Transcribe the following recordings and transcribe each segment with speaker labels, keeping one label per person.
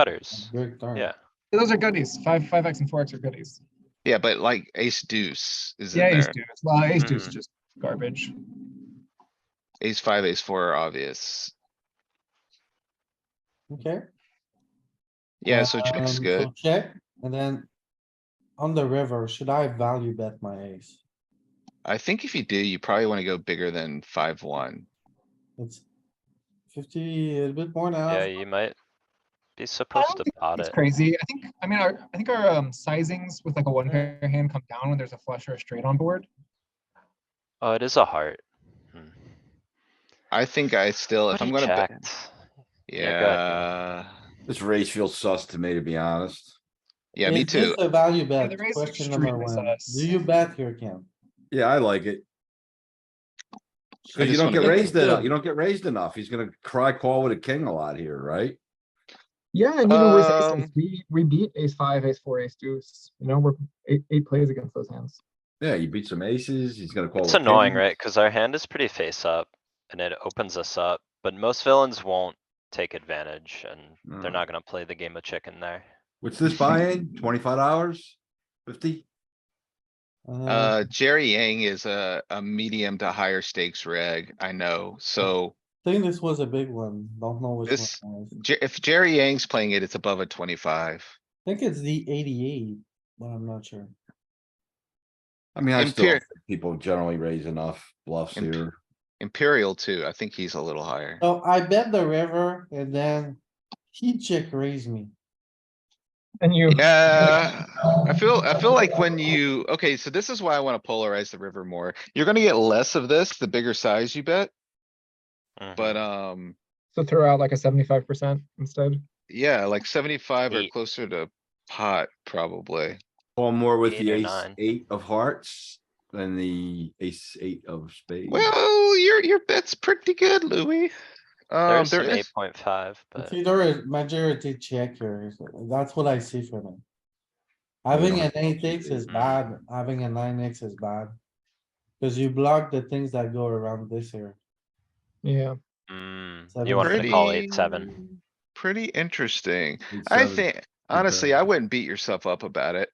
Speaker 1: gutters.
Speaker 2: Good turn.
Speaker 1: Yeah.
Speaker 3: Those are goodies. Five, five X and four X are goodies.
Speaker 4: Yeah, but like ace deuce is in
Speaker 3: Yeah, ace
Speaker 4: there. Mm-hmm.
Speaker 3: deuce. Well, ace deuce
Speaker 1: Mhm.
Speaker 3: is just garbage.
Speaker 4: Ace five, ace four are obvious.
Speaker 2: Okay.
Speaker 4: Yeah, so check's
Speaker 2: Um,
Speaker 4: good.
Speaker 2: so Check, and then on the river, should I value bet my ace?
Speaker 4: I think if you do, you probably wanna go bigger than five, one.
Speaker 2: It's fifty, a bit more now.
Speaker 1: Yeah, you might be supposed to
Speaker 3: Um, think
Speaker 1: pot
Speaker 3: It's
Speaker 1: it.
Speaker 3: crazy. I think, I mean, our, I think our um, sizings with like a one pair hand come down when there's a flush or a straight on board.
Speaker 1: Oh, it is a heart. Hmm.
Speaker 4: I think I still, if
Speaker 1: But he
Speaker 4: I'm gonna, bet-
Speaker 1: checked. Yeah, go
Speaker 4: yeah.
Speaker 5: This race feels sus to me, to be honest.
Speaker 4: Yeah, me
Speaker 2: Is this
Speaker 4: too.
Speaker 2: A value
Speaker 3: Yeah,
Speaker 2: bet,
Speaker 3: the raise is
Speaker 2: question number
Speaker 3: extremely
Speaker 2: one.
Speaker 3: sus.
Speaker 2: Do you bet here, Ken?
Speaker 5: Yeah, I like it.
Speaker 4: I
Speaker 5: Cause you
Speaker 4: just
Speaker 5: don't
Speaker 4: wanna
Speaker 5: get
Speaker 4: bet
Speaker 5: raised enough.
Speaker 2: too.
Speaker 5: You don't get raised enough. He's gonna cry call with a king a lot here, right?
Speaker 3: Yeah, and
Speaker 4: even with ace- Um,
Speaker 3: we, we beat ace five, ace four, ace deuce. You know, we're eight, eight plays against those hands.
Speaker 5: Yeah, you beat some aces, he's gonna call.
Speaker 1: It's
Speaker 5: with
Speaker 1: annoying,
Speaker 5: kings.
Speaker 1: right? Cuz our hand is pretty face up and it opens us up, but most villains won't take advantage and they're
Speaker 4: Hmm.
Speaker 5: Mm.
Speaker 1: not gonna play the game of chicken there.
Speaker 5: What's this buy-in? Twenty-five dollars? Fifty?
Speaker 4: Uh, Jerry Yang is a, a medium to higher stakes reg, I know, so
Speaker 2: Think this was a big one, don't know which
Speaker 4: This-
Speaker 2: one. it was.
Speaker 4: Jer- if Jerry Yang's playing it, it's above a twenty-five.
Speaker 2: Think it's the eighty-eight, but I'm not sure.
Speaker 5: I mean, I still,
Speaker 4: Imper-
Speaker 5: don't think people generally raise enough bluffs
Speaker 4: Imp-
Speaker 5: here.
Speaker 4: Imperial too, I think he's a little higher.
Speaker 2: So I bet the river and then he check raised me.
Speaker 3: And you,
Speaker 4: Yeah, I feel, I feel like when you, okay, so this is why I wanna polarize the river more. You're gonna get less of this, the bigger size you bet,
Speaker 1: Mhm.
Speaker 4: but, um,
Speaker 3: so throw out like a seventy-five percent instead.
Speaker 4: yeah, like seventy-five or
Speaker 1: Eight.
Speaker 4: closer to pot, probably.
Speaker 5: Call more with
Speaker 1: Eight
Speaker 5: the
Speaker 1: or
Speaker 5: ace
Speaker 1: nine.
Speaker 5: eight of hearts than the ace eight of spades.
Speaker 4: Well, your, your bet's pretty good, Louis. Um,
Speaker 1: There's
Speaker 4: there
Speaker 1: an
Speaker 4: is,
Speaker 1: eight point five, but
Speaker 2: It's either a majority check here, so that's what I see from him. Having an eight X
Speaker 4: Mm-hmm.
Speaker 2: is bad, having a nine X is bad. Cause you block the things that go around this here.
Speaker 3: Yeah.
Speaker 1: mm,
Speaker 2: Seven
Speaker 1: you wanted to call eight,
Speaker 4: Pretty-
Speaker 1: seven.
Speaker 4: pretty interesting.
Speaker 5: Eight,
Speaker 4: I
Speaker 5: seven.
Speaker 4: think, honestly, I wouldn't beat yourself up about it.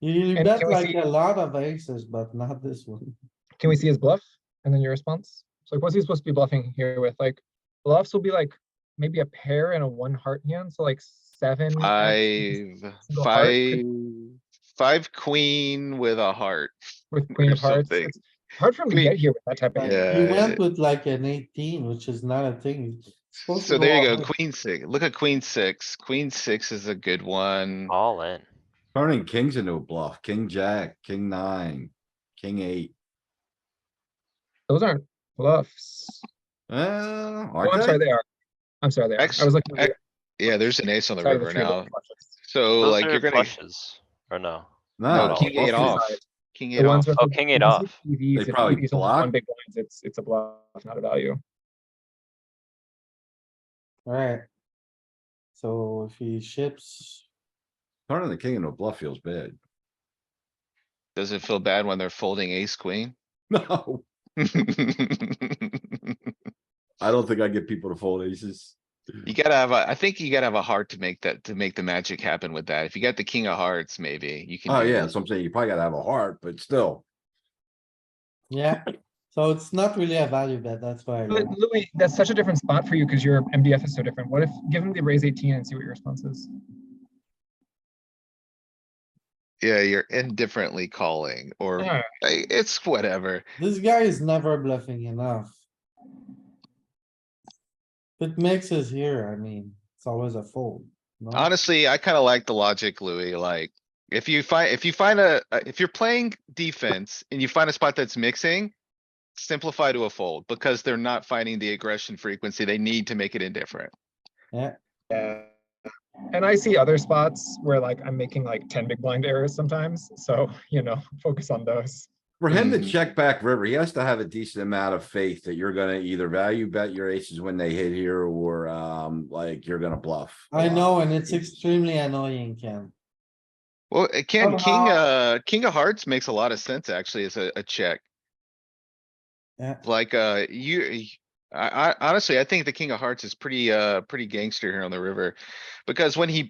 Speaker 2: You
Speaker 3: And
Speaker 2: bet
Speaker 3: can we
Speaker 2: like
Speaker 3: see-
Speaker 2: a lot of aces, but not this one.
Speaker 3: Can we see his bluff and then your response? So like, what's he supposed to be bluffing here with? Like bluffs will be like maybe a pair and a one heart hand, so like seven. X,
Speaker 4: Five,
Speaker 3: single heart
Speaker 4: five,
Speaker 3: could-
Speaker 4: five queen with a heart.
Speaker 3: With queen
Speaker 4: or
Speaker 3: of hearts.
Speaker 4: something.
Speaker 3: It's hard for him to
Speaker 4: Queen-
Speaker 3: get here with that type of.
Speaker 2: Like,
Speaker 3: hand.
Speaker 2: You
Speaker 4: Yeah.
Speaker 2: went with like an eighteen, which is not a thing. It's supposed to
Speaker 4: So there you
Speaker 2: out
Speaker 4: go,
Speaker 2: with-
Speaker 4: queen six. Look at queen six. Queen six is a good one.
Speaker 1: All in.
Speaker 5: Turning kings into a bluff, king jack, king nine, king eight.
Speaker 3: Those aren't bluffs.
Speaker 5: Uh,
Speaker 3: Oh, I'm
Speaker 5: aren't
Speaker 3: sorry,
Speaker 5: they?
Speaker 3: they are. I'm sorry, they are.
Speaker 4: Ex-
Speaker 3: I was looking. at
Speaker 4: ex- Yeah, there's an ace on the
Speaker 3: sorry, the
Speaker 4: river
Speaker 3: three of
Speaker 4: now.
Speaker 3: the flushes.
Speaker 4: So
Speaker 1: Those
Speaker 4: like
Speaker 1: are
Speaker 4: you're gonna,
Speaker 1: Flushes, or no?
Speaker 5: No,
Speaker 1: no,
Speaker 5: it's
Speaker 1: king
Speaker 4: king eight
Speaker 5: bluffing.
Speaker 4: off,
Speaker 3: side.
Speaker 4: king
Speaker 3: The
Speaker 4: eight
Speaker 3: ones
Speaker 4: off.
Speaker 3: with
Speaker 1: Oh,
Speaker 3: the-
Speaker 1: king eight
Speaker 3: the ones with
Speaker 1: off.
Speaker 3: EVs, if
Speaker 5: probably
Speaker 3: EVs only have
Speaker 5: block.
Speaker 3: One big blinds, it's, it's a bluff, not a value.
Speaker 2: Alright. So if he ships,
Speaker 5: Turning the king into a bluff feels bad.
Speaker 4: Does it feel bad when they're folding ace queen?
Speaker 5: No,
Speaker 4: You
Speaker 5: I don't think I get people to fold aces.
Speaker 4: gotta have, a. I think you gotta have a heart to make that, to make the magic happen with that. If you got the king of hearts, maybe you can.
Speaker 5: Oh,
Speaker 4: do it.
Speaker 5: yeah, so I'm saying you probably gotta have a heart, but still.
Speaker 2: yeah, so it's not really a value bet, that's why. I
Speaker 3: But
Speaker 2: went.
Speaker 3: Louis, that's such a different spot for you because your MDF is so different. What if, give him the raise eighteen and see what your response is?
Speaker 4: Yeah, you're indifferently calling or
Speaker 3: Yeah.
Speaker 4: I- it's whatever.
Speaker 2: This guy is never bluffing enough. It mixes here, I mean, it's always a fold. no?
Speaker 4: Honestly, I kinda like the logic, Louis, like. If you find, if you find a, a- if you're playing defense and you find a spot that's mixing. Simplify to a fold because they're not finding the aggression frequency. They need to make it indifferent.
Speaker 3: And I see other spots where like I'm making like ten big blind errors sometimes, so, you know, focus on those.
Speaker 5: For him to
Speaker 4: Mhm.
Speaker 5: check back river, he has to have a decent amount of faith that you're gonna either value bet your aces when they hit here or, um, like you're gonna bluff.
Speaker 2: I know, and it's
Speaker 5: Aces.
Speaker 2: extremely annoying, Ken.
Speaker 4: Well, it can, king,
Speaker 2: Somehow-
Speaker 4: uh, king of hearts makes a lot of sense actually as a, a check.
Speaker 2: Yeah.
Speaker 4: Like, uh, you, I, I honestly, I think the king of hearts is pretty, uh, pretty gangster here on the river. Because when he